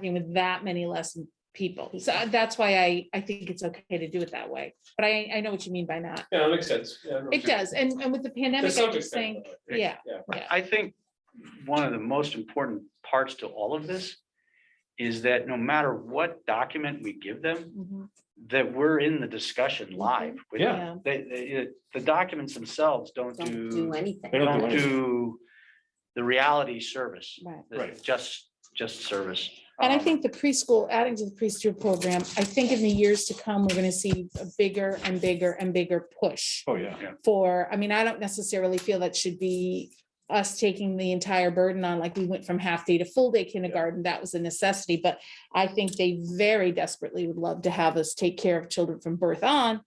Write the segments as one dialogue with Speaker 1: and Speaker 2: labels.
Speaker 1: talking with that many less people. So I- that's why I, I think it's okay to do it that way. But I, I know what you mean by not.
Speaker 2: Yeah, that makes sense. Yeah, no,
Speaker 1: It does. And, and with the
Speaker 2: to
Speaker 1: pandemic, I
Speaker 2: some
Speaker 1: just
Speaker 2: extent,
Speaker 1: think,
Speaker 2: though, I
Speaker 1: yeah.
Speaker 3: Right. I think one of the most important parts to all of this is that no matter what document we give them,
Speaker 1: mhm,
Speaker 3: that we're in the discussion
Speaker 1: Mm-hmm.
Speaker 3: live. with them.
Speaker 1: yeah.
Speaker 3: They, they, it- the documents themselves don't
Speaker 4: Don't do
Speaker 3: do,
Speaker 4: anything.
Speaker 2: They don't do
Speaker 3: don't
Speaker 2: anything.
Speaker 3: do the reality service.
Speaker 1: Right.
Speaker 3: the
Speaker 2: Right.
Speaker 3: Just, just service.
Speaker 1: And I
Speaker 3: Um,
Speaker 1: think the preschool, adding to the preschool program, I think in the years to come, we're gonna see a bigger and bigger and bigger push
Speaker 2: Oh, yeah.
Speaker 1: for, I mean, I don't necessarily feel that should be us taking the entire burden on, like, we went from half day to full day kindergarten, that was a necessity, but I think they very desperately would love to have us take care of children from birth on.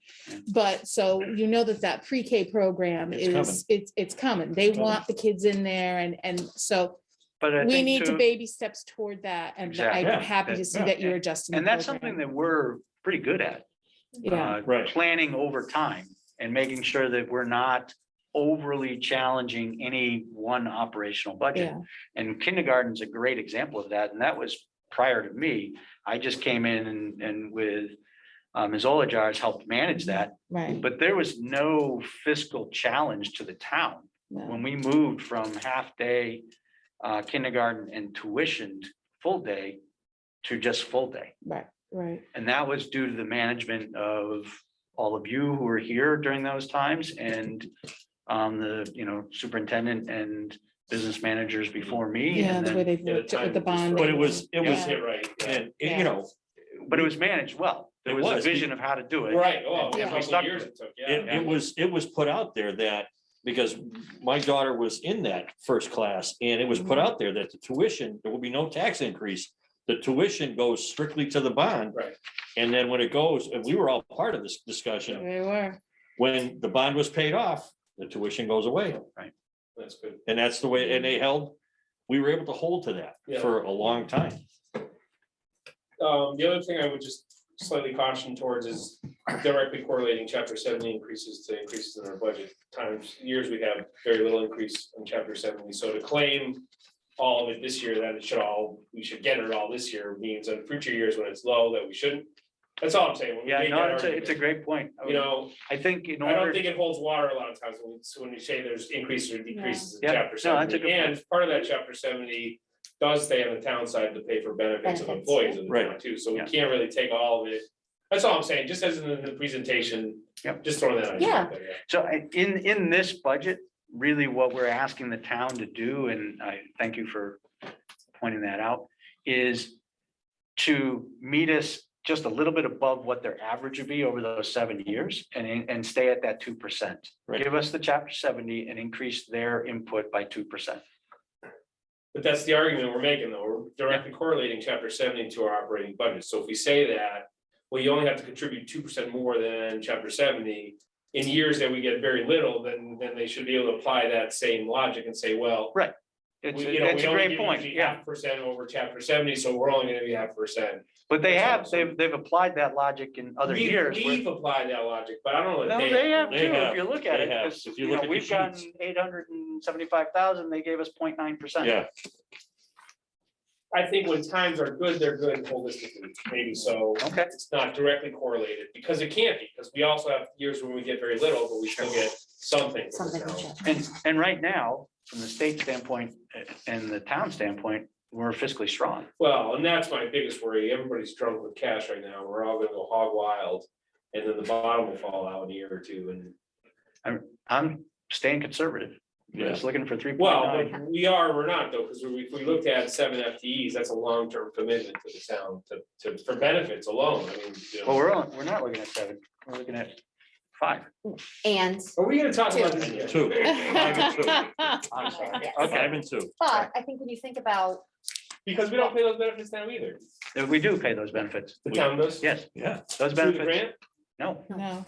Speaker 1: But so you know that that pre-K program
Speaker 2: It's coming.
Speaker 1: is, it's, it's coming, they
Speaker 2: It's coming.
Speaker 1: want the kids in there and, and so
Speaker 3: But I
Speaker 1: we
Speaker 3: think
Speaker 1: need to
Speaker 3: too-
Speaker 1: baby steps toward that, and
Speaker 3: Exactly.
Speaker 1: I'm
Speaker 2: Yeah.
Speaker 1: happy to see
Speaker 2: Yeah.
Speaker 1: that you're adjusting.
Speaker 3: And
Speaker 1: the
Speaker 3: that's something
Speaker 1: program.
Speaker 3: that we're pretty good at.
Speaker 1: Yeah,
Speaker 3: uh,
Speaker 2: Right.
Speaker 3: Planning over time and making sure that we're not overly challenging any one operational budget.
Speaker 1: yeah,
Speaker 3: And kindergarten's a great example of that, and that was prior to me. I just came in and, and with uh, Ms. Olajar's helped manage that,
Speaker 1: right.
Speaker 3: but there was no fiscal challenge to the town.
Speaker 1: no,
Speaker 3: When we moved from half-day uh, kindergarten and tuitioned full-day to just full-day.
Speaker 1: Right, right,
Speaker 3: And that was due to the management of all of you who were here during those times and um, the, you know, superintendent and business managers before me.
Speaker 1: yeah,
Speaker 3: and
Speaker 1: the way
Speaker 3: then-
Speaker 1: they
Speaker 2: Yeah, the
Speaker 1: worked it with the
Speaker 2: timing was
Speaker 1: bond.
Speaker 2: right. But it was, it
Speaker 1: Yeah.
Speaker 2: was hit right. And,
Speaker 1: Yeah.
Speaker 2: you know,
Speaker 3: But it was managed well. There
Speaker 2: It
Speaker 3: was a
Speaker 2: was.
Speaker 3: vision of how to do it.
Speaker 2: right, oh, a
Speaker 3: And- and we
Speaker 2: couple
Speaker 3: stuck
Speaker 2: years
Speaker 3: to it.
Speaker 2: it took,
Speaker 5: It,
Speaker 2: yeah.
Speaker 5: it was, it was put out there that, because my daughter was in that first class and it was put out there that the tuition, there will be no tax increase. The tuition goes strictly to the bond.
Speaker 2: Right.
Speaker 5: And then when it goes, and we were all part of this discussion,
Speaker 1: They were,
Speaker 5: when the bond was paid off, the tuition goes away.
Speaker 2: That's good.
Speaker 5: And that's the way, and they held, we were able to hold to
Speaker 2: Yeah.
Speaker 5: that for a long time.
Speaker 2: Um, the other thing I would just slightly caution towards is directly correlating chapter seventy increases to increases in our budget. Times, years we have very little increase in chapter seventy, so to claim all of it this year, that it should all, we should get it all this year, means on future years when it's low that we shouldn't. That's all I'm saying. when we
Speaker 3: Yeah,
Speaker 2: make
Speaker 3: no,
Speaker 2: that
Speaker 3: it's a, it's a
Speaker 2: argument,
Speaker 3: great point.
Speaker 2: You know,
Speaker 3: I think in
Speaker 2: I don't
Speaker 3: order,
Speaker 2: think it holds water a lot of times when we, so when you say there's increases or decreases in
Speaker 3: Yeah. Yeah,
Speaker 2: chapter
Speaker 3: no, that's a good
Speaker 2: seventy, and part of that chapter seventy. Does stay on the town side to pay for benefits of
Speaker 4: Benefits,
Speaker 2: employees of the town
Speaker 5: Right.
Speaker 2: too, so we
Speaker 3: Yeah.
Speaker 2: can't really take all of it. That's all I'm saying, just as in the presentation,
Speaker 3: Yep.
Speaker 2: just throwing that idea out there. Yeah.
Speaker 3: so I- in, in this budget, really what we're asking the town to do, and I thank you for pointing that out, is to meet us just a little bit above what their average would be over those seven years and, and stay at that two percent.
Speaker 5: Right.
Speaker 3: Give us the chapter seventy and increase their input by two percent.
Speaker 2: But that's the argument we're making, though, we're directly correlating chapter seventy to our operating budget, so if we say that. Well, you only have to contribute two percent more than chapter seventy, in years that we get very little, then then they should be able to apply that same logic and say, well.
Speaker 3: It's,
Speaker 2: We- you know,
Speaker 3: it's
Speaker 2: we
Speaker 3: a
Speaker 2: only
Speaker 3: great
Speaker 2: give
Speaker 3: point,
Speaker 2: usually
Speaker 3: yeah.
Speaker 2: half Percent over chapter seventy, so we're only gonna be half percent.
Speaker 3: But they
Speaker 2: That's
Speaker 3: have,
Speaker 2: awesome.
Speaker 3: they've, they've applied that logic in other
Speaker 2: We've-
Speaker 3: years. where-
Speaker 2: We've applied that logic, but I don't know.
Speaker 3: No,
Speaker 2: that
Speaker 3: they have too,
Speaker 5: They
Speaker 3: if
Speaker 5: have,
Speaker 3: you look at
Speaker 5: they
Speaker 3: it,
Speaker 5: have.
Speaker 3: 'cause,
Speaker 5: If you
Speaker 3: you
Speaker 5: look
Speaker 3: know,
Speaker 5: at the
Speaker 3: we've gotten
Speaker 5: sheets.
Speaker 3: eight hundred and seventy-five thousand, they gave us 0.9 percent.
Speaker 5: Yeah,
Speaker 2: I think when times are good, they're good holistically, maybe so.
Speaker 3: Okay,
Speaker 2: It's not directly correlated, because it can't be, because we also have years when we get very little, but we still get something. from the
Speaker 4: Something.
Speaker 2: town.
Speaker 3: and, and right now, from the state standpoint eh, and the town standpoint, we're fiscally strong.
Speaker 2: Well, and that's my biggest worry. Everybody's drunk with cash right now. We're all gonna go hog wild. And then the bottom will fall out in a year or two and,
Speaker 3: I'm staying conservative,
Speaker 5: Yeah.
Speaker 3: just looking for three point
Speaker 2: well,
Speaker 3: nine.
Speaker 2: but we are, we're not though, because we, if we looked at seven FTEs, that's a long-term commitment to the town to, to, for benefits alone. I mean, you know.
Speaker 3: Well, we're, only- we're not looking at seven, we're looking at five.
Speaker 4: And,
Speaker 2: Are we gonna talk about this again?
Speaker 5: two,
Speaker 3: I'm sorry.
Speaker 5: five
Speaker 3: Okay,
Speaker 5: and two.
Speaker 4: but I think when you think about,
Speaker 2: Because we don't pay those benefits now either.
Speaker 3: Eh, we do pay those benefits,
Speaker 2: The town does.
Speaker 3: yes,
Speaker 5: Yeah.
Speaker 3: those
Speaker 2: Through the
Speaker 3: benefits,
Speaker 2: grant?
Speaker 3: no,
Speaker 1: no,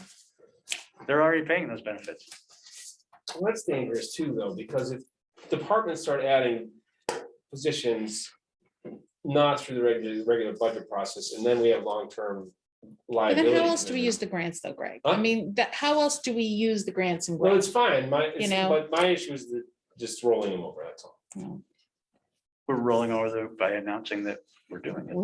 Speaker 3: they're already paying those benefits.
Speaker 2: Well, that's dangerous too, though, because if departments start adding positions not through the regular, regular budget process, and then we have long-term
Speaker 1: but
Speaker 2: liability.
Speaker 1: then how else do we use the grants though, Greg? I
Speaker 2: Huh?
Speaker 1: mean, that, how else do we use the grants and
Speaker 2: Well,
Speaker 1: grants?
Speaker 2: it's fine, my,
Speaker 1: You
Speaker 2: it's-
Speaker 1: know?
Speaker 2: but my issue is the, just rolling them over, that's all.
Speaker 3: we're rolling over the, by announcing that we're doing it.